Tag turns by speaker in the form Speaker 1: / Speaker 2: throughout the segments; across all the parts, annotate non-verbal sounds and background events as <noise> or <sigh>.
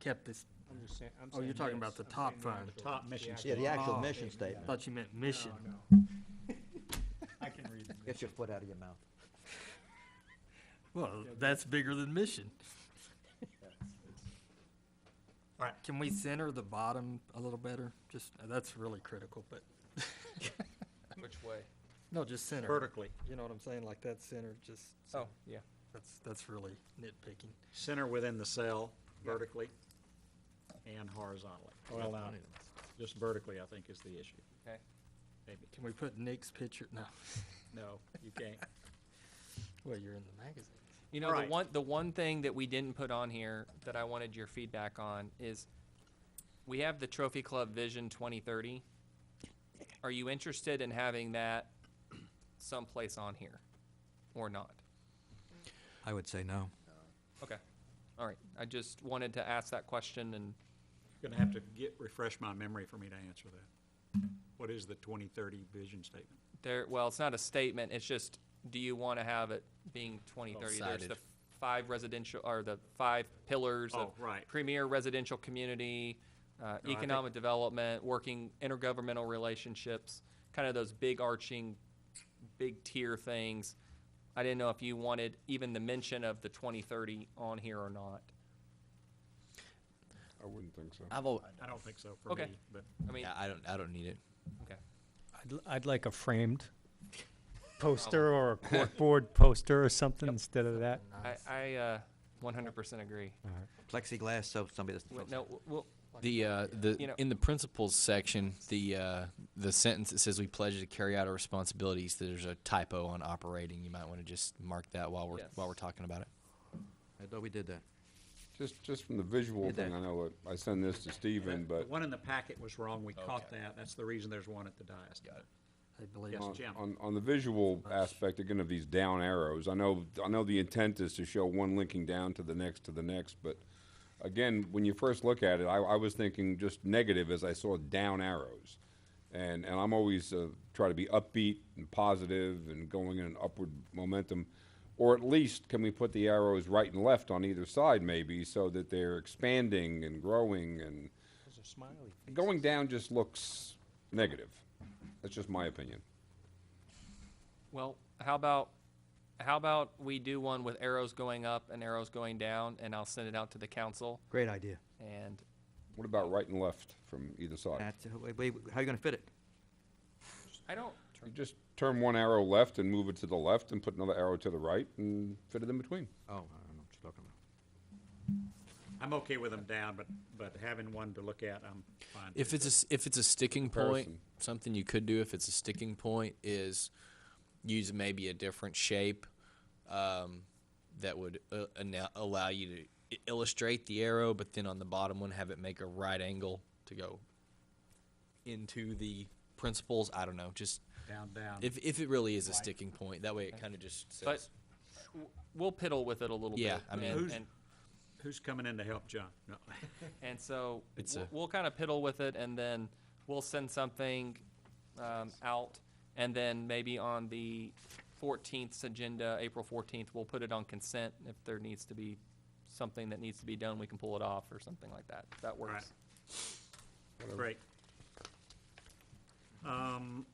Speaker 1: kept this,
Speaker 2: I'm just saying, I'm
Speaker 1: Oh, you're
Speaker 2: saying
Speaker 1: talking about
Speaker 2: minutes.
Speaker 1: the
Speaker 2: I'm
Speaker 1: top
Speaker 2: saying
Speaker 1: fund.
Speaker 2: actual-
Speaker 3: Top mission
Speaker 2: actual-
Speaker 3: Yeah,
Speaker 4: the actual
Speaker 1: Oh.
Speaker 4: mission statement.
Speaker 1: thought you meant mission.
Speaker 2: No, no. I can read them.
Speaker 4: Get your foot out of your mouth.
Speaker 1: Well, that's bigger than <laughs> mission. All right, can we center the bottom a little better? Just, uh, that's really critical, but, <laughs>
Speaker 5: Which way?
Speaker 1: no, just center.
Speaker 3: vertically.
Speaker 1: You know what I'm saying? Like that center, just,
Speaker 5: Oh, yeah.
Speaker 1: that's, that's really nitpicking.
Speaker 3: Center within the cell vertically and horizontally. Well, now, just vertically, I think, is the issue,
Speaker 5: Okay.
Speaker 3: maybe.
Speaker 1: Can we put Nick's picture? No. <laughs>
Speaker 3: No, you can't.
Speaker 1: Well, you're in the magazine.
Speaker 5: You know,
Speaker 3: Right.
Speaker 5: the one the one thing that we didn't put on here that I wanted your feedback on is we have the Trophy Club Vision 2030. Are you interested in having that someplace on here or not?
Speaker 6: I would say no.
Speaker 5: Okay. All right. I just wanted to ask that question and
Speaker 3: Gonna have to get, refresh my memory for me to answer that. What is the 2030 vision statement?
Speaker 5: There, well, it's not a statement, it's just, do you want to have it being 2030? There's the
Speaker 6: Sided.
Speaker 5: five residential, or the five pillars of
Speaker 3: Oh, right.
Speaker 5: premier residential community, uh,
Speaker 3: think-
Speaker 5: economic development, working intergovernmental relationships, kind of those big arching, big tier things. I didn't know if you wanted even the mention of the 2030 on here or not.
Speaker 7: I wouldn't think so.
Speaker 6: I've al-
Speaker 3: I don't think so for
Speaker 5: Okay.
Speaker 3: me, but
Speaker 5: I mean,
Speaker 6: yeah, I don't. I don't need it.
Speaker 5: okay.
Speaker 8: I'd, l- I'd like a framed poster or a corkboard poster or something instead of that.
Speaker 5: I, I, uh, 100% agree.
Speaker 6: Plexiglass, so somebody doesn't.
Speaker 5: Wait,
Speaker 6: feel
Speaker 5: No,
Speaker 6: safe.
Speaker 5: w- well,
Speaker 9: The, uh,
Speaker 5: You know-
Speaker 9: the, in the principles section, the, uh, the sentence that says we pledge to carry out our responsibilities, there's a typo on operating. You might want to just mark that while we're,
Speaker 5: Yes.
Speaker 9: while we're talking about it.
Speaker 6: I thought we did that.
Speaker 7: Just, just from the visual
Speaker 6: Did
Speaker 7: thing,
Speaker 6: that.
Speaker 7: I know it- I send this to Stephen,
Speaker 3: the
Speaker 7: but
Speaker 3: one in the packet was wrong. We caught that. That's the reason there's one at the dais.
Speaker 1: I believe.
Speaker 3: Yes,
Speaker 7: on,
Speaker 3: Jim.
Speaker 7: on, on the visual aspect, again, of these down arrows, I know, I know the intent is to show one linking down to the next, to the next, but again, when you first look at it, I, I was thinking just negative as I saw down arrows. And, and I'm always, uh, try to be upbeat and positive and going in an upward momentum. Or at least, can we put the arrows right and left on either side maybe, so that they're expanding and growing and
Speaker 2: Those are smiley faces.
Speaker 7: going down just looks negative. That's just my opinion.
Speaker 5: Well, how about, how about we do one with arrows going up and arrows going down, and I'll send it out to the council,
Speaker 4: Great idea.
Speaker 5: and
Speaker 7: What about right and left from either side?
Speaker 6: That's, wait, wait, how you gonna fit it?
Speaker 5: I don't,
Speaker 7: You just turn one arrow left and move it to the left and put another arrow to the right and fit it in between.
Speaker 6: Oh, I don't know what you're talking about.
Speaker 3: I'm okay with them down, but, but having one to look at, I'm fine.
Speaker 9: If it's a, s- if it's a sticking point,
Speaker 7: Comparison.
Speaker 9: something you could do if it's a sticking point is use maybe a different shape um, that would uh, ana- allow you to i- illustrate the arrow, but then on the bottom one have it make a right angle to go into the principles. I don't know, just
Speaker 3: Down, down.
Speaker 9: if if it really is a sticking point, that way it kind of just says.
Speaker 5: but w- we'll piddle with it a little bit.
Speaker 9: Yeah, I mean-
Speaker 5: And,
Speaker 3: Who's-
Speaker 5: and-
Speaker 3: Who's coming in to help John? No.
Speaker 5: and so,
Speaker 9: It's
Speaker 5: we'll-
Speaker 9: a-
Speaker 5: we'll kind of piddle with it, and then we'll send something, um, out, and then maybe on the fourteenth agenda, April fourteenth, we'll put it on consent. If there needs to be something that needs to be done, we can pull it off or something like that. If That works.
Speaker 3: Great. Um,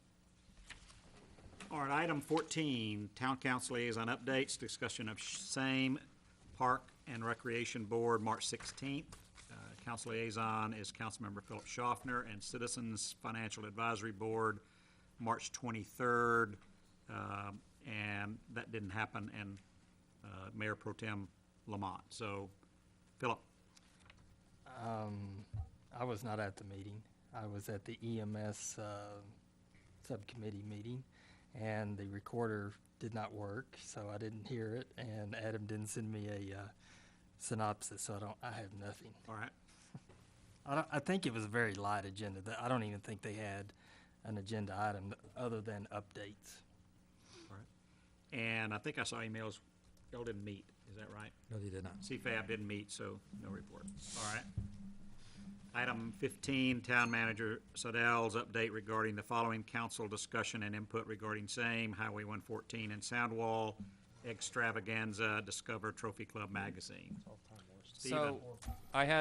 Speaker 3: All right, item 14, Town Council Liaison Updates, discussion of same Park and Recreation Board, March 16th. Uh, Council Liaison is Councilmember Philip Schaffner, and Citizens Financial Advisory Board, March 23rd. Um, And that didn't happen, and uh, Mayor Pro Tem Lamont. So, Philip,
Speaker 1: Um, I was not at the meeting. I was at the EMS, uh, subcommittee meeting, and the recorder did not work, so I didn't hear it, and Adam didn't send me a, uh, synopsis, so I don't, I have nothing.
Speaker 3: all right?
Speaker 1: I don't, I think it was a very light agenda. Th- I don't even think they had an agenda item th- other than updates.
Speaker 3: And I think I saw emails, y'all didn't meet, is that right?
Speaker 6: No, they did not.
Speaker 3: CFAB didn't meet, so no report. All right. Item fifteen, Town Manager Sodell's update regarding the following council discussion and input regarding same Highway one fourteen and Soundwall extravaganza Discover Trophy Club magazine. Steven.
Speaker 5: So, I had